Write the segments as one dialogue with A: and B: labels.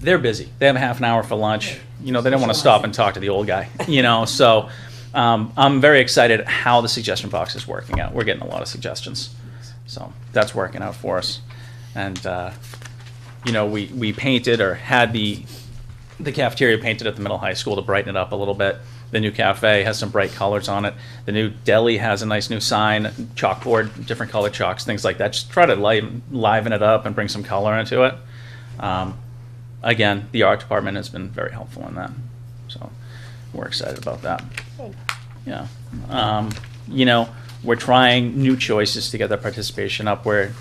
A: they're busy. They have a half an hour for lunch. You know, they don't want to stop and talk to the old guy, you know, so um, I'm very excited how the suggestion box is working out. We're getting a lot of suggestions. So that's working out for us. And, uh, you know, we, we painted or had the, the cafeteria painted at the middle high school to brighten it up a little bit. The new cafe has some bright colors on it. The new deli has a nice new sign, chalkboard, different color chalks, things like that. Just try to liven, liven it up and bring some color into it. Um, again, the art department has been very helpful in that. So we're excited about that. Yeah. Um, you know, we're trying new choices to get that participation up where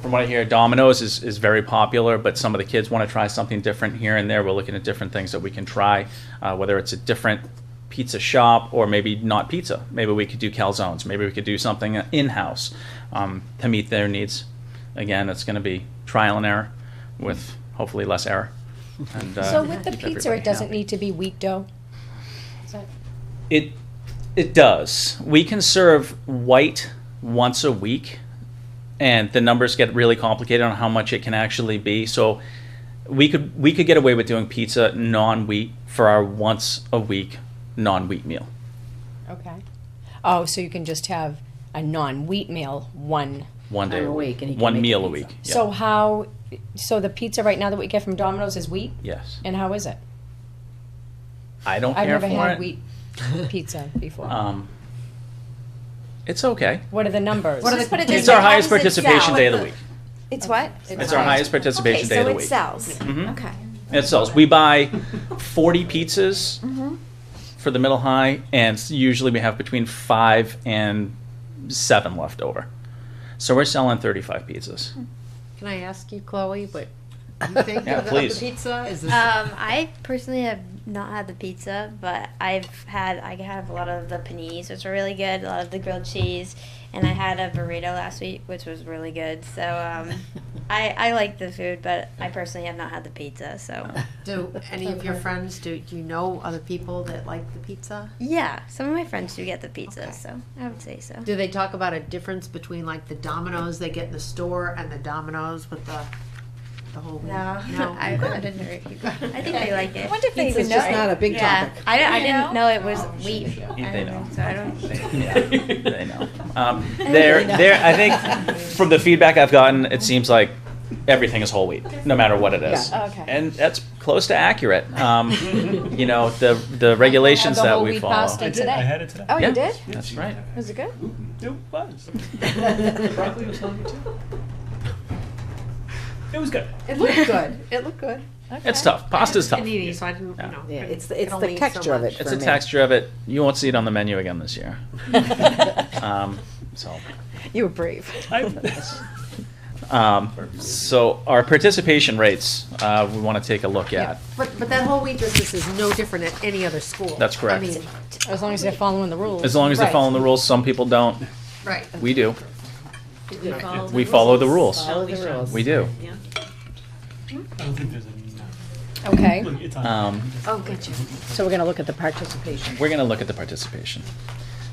A: from what I hear, Domino's is, is very popular, but some of the kids want to try something different here and there. We're looking at different things that we can try, uh, whether it's a different pizza shop or maybe not pizza. Maybe we could do calzones. Maybe we could do something in house um, to meet their needs. Again, it's going to be trial and error with hopefully less error. And, uh,
B: So with the
A: keep
B: pizza,
A: everybody
B: it doesn't
A: happy.
B: need to be wheat dough?
A: It it does. We can serve white once a week, and the numbers get really complicated on how much it can actually be. So we could we could get away with doing pizza non wheat for our once a week non wheat meal.
B: Okay. Oh, so you can just have a non-wheat meal, one.
A: One day
C: Time a week, and he can
A: one
C: make
A: meal
C: the
A: a
C: pizza.
A: week. Yeah.
B: So how, so the pizza right now that we get from Domino's is wheat?
A: yes,
B: And how is it?
A: I don't
B: I've
A: care
B: never
A: for
B: had
A: it.
B: wheat pizza before.
A: Um, it's okay.
B: What are the numbers?
D: What are the-
E: Just put it this
A: It's our
E: way, how
A: highest
E: does it
A: participation
E: sell?
A: day of the week.
E: It's what?
A: It's our highest participation day of the
E: Okay,
A: week.
E: so it sells.
A: Mhm.
E: Okay.
A: It sells. We buy 40 pizzas for the middle high, and s- usually we have between five and seven left over. So we're selling 35 pizzas.
C: Can I ask you, Chloe, what you think of
A: Yeah,
C: the- of the
A: please.
C: pizza? Is this,
D: Um, I personally have not had the pizza, but I've had I have a lot of the paninis, which are really good. A lot of the grilled cheese, and I had a burrito last week, which was really good. So um, I I like the food, but I personally have not had the pizza. So
C: do any of your friends, do, do you know other people that like the pizza?
D: yeah, some of my friends do get the pizza,
C: Okay.
D: so I would say so.
C: Do they talk about a difference between like the Dominoes they get in the store and the Dominoes with the, the whole? wheat?
D: No,
C: No.
D: I, I didn't know if you. I think they like it.
B: I wonder if they even
C: It's
B: know.
C: just not a big
D: yeah,
C: topic. Oh,
D: I, don't- I
E: You
D: didn't know
E: know?
D: it was wheat. I
A: They
D: don't
A: know.
D: So I don't.
A: Yeah, they know. Um, they're, they're, I think from the feedback I've gotten, it seems like everything is whole wheat, no matter what it is.
B: Yeah, Oh, okay.
A: And that's close to accurate. Um, you know, the, the regulations
B: the
A: that
B: whole
A: we
B: wheat
A: follow.
B: pasta.
F: I did.
B: today.
F: I had it today.
B: Oh,
A: Yeah.
B: you did?
A: That's right.
B: Was it good?
F: It was. Broccoli was hungry too. It was good.
C: It looked good. It looked good.
A: It's tough. Pasta's tough.
C: Panini, so I didn't, you
A: Yeah.
C: know.
G: Yeah,
C: could-
G: it's the- it's
C: could
G: the
C: only eat so
G: texture of
C: much.
G: it.
A: It's
G: for
A: a
G: me.
A: texture of it. You won't see it on the menu again this year. Um, So,
B: You were brave.
F: I,
A: um, so our participation rates, uh, we want to take a look at.
C: But, but that whole wheat business is no different at any other school.
A: That's correct.
C: I mean,
B: As long as they're following the rules.
A: As long as they're
C: Right.
A: following the rules, some people don't.
C: right.
A: We do. We follow the rules.
G: Follow the rules.
A: We do.
F: I don't think there's enough.
B: Okay,
F: Look, it's on.
A: Um,
C: Oh, gotcha.
G: So we're gonna look at the participation.
A: we're going to look at the participation.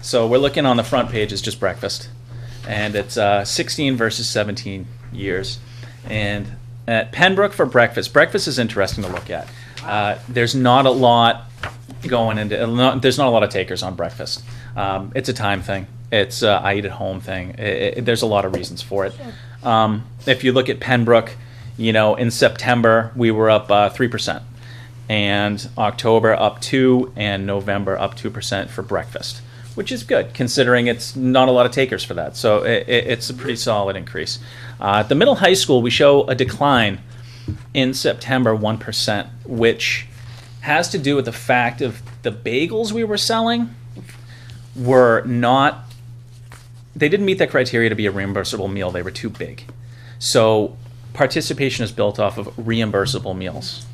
A: So we're looking on the front page is just breakfast, and it's uh, 16 versus 17 years. And at Pembroke for breakfast, breakfast is interesting to look at. Uh, there's not a lot going into. uh, Not, there's not a lot of takers on breakfast. Um, it's a time thing. It's uh, I eat at home thing. I i there's a lot of reasons for it. Um, if you look at Pembroke, you know in September we were up uh, three percent and October up two, and November up two percent for breakfast, which is good considering it's not a lot of takers for that. So it, it, it's a pretty solid increase. Uh, at the middle high school, we show a decline in September one percent, which has to do with the fact of the bagels we were selling were not they didn't meet that criteria to be a reimbursable meal they were too big so participation is built off of reimbursable meals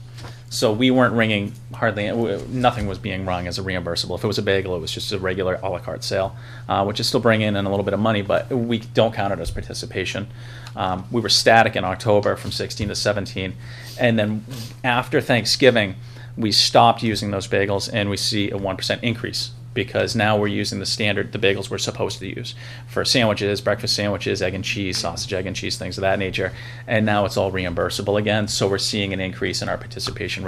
A: so we weren't ringing hardly uh, nothing was being rung as a reimbursable if it was a bagel it was just a regular a la carte sale uh, which is still bringing in a little bit of money but we don't count it as participation um, we were static in october from 16 to 17 and then after thanksgiving we stopped using those bagels and we see a 1% increase because now we're using the standard, the bagels we're supposed to use for sandwiches, breakfast sandwiches, egg and cheese, sausage, egg and cheese, things of that nature. And now it's all reimbursable again. So we're seeing an increase in our participation rate.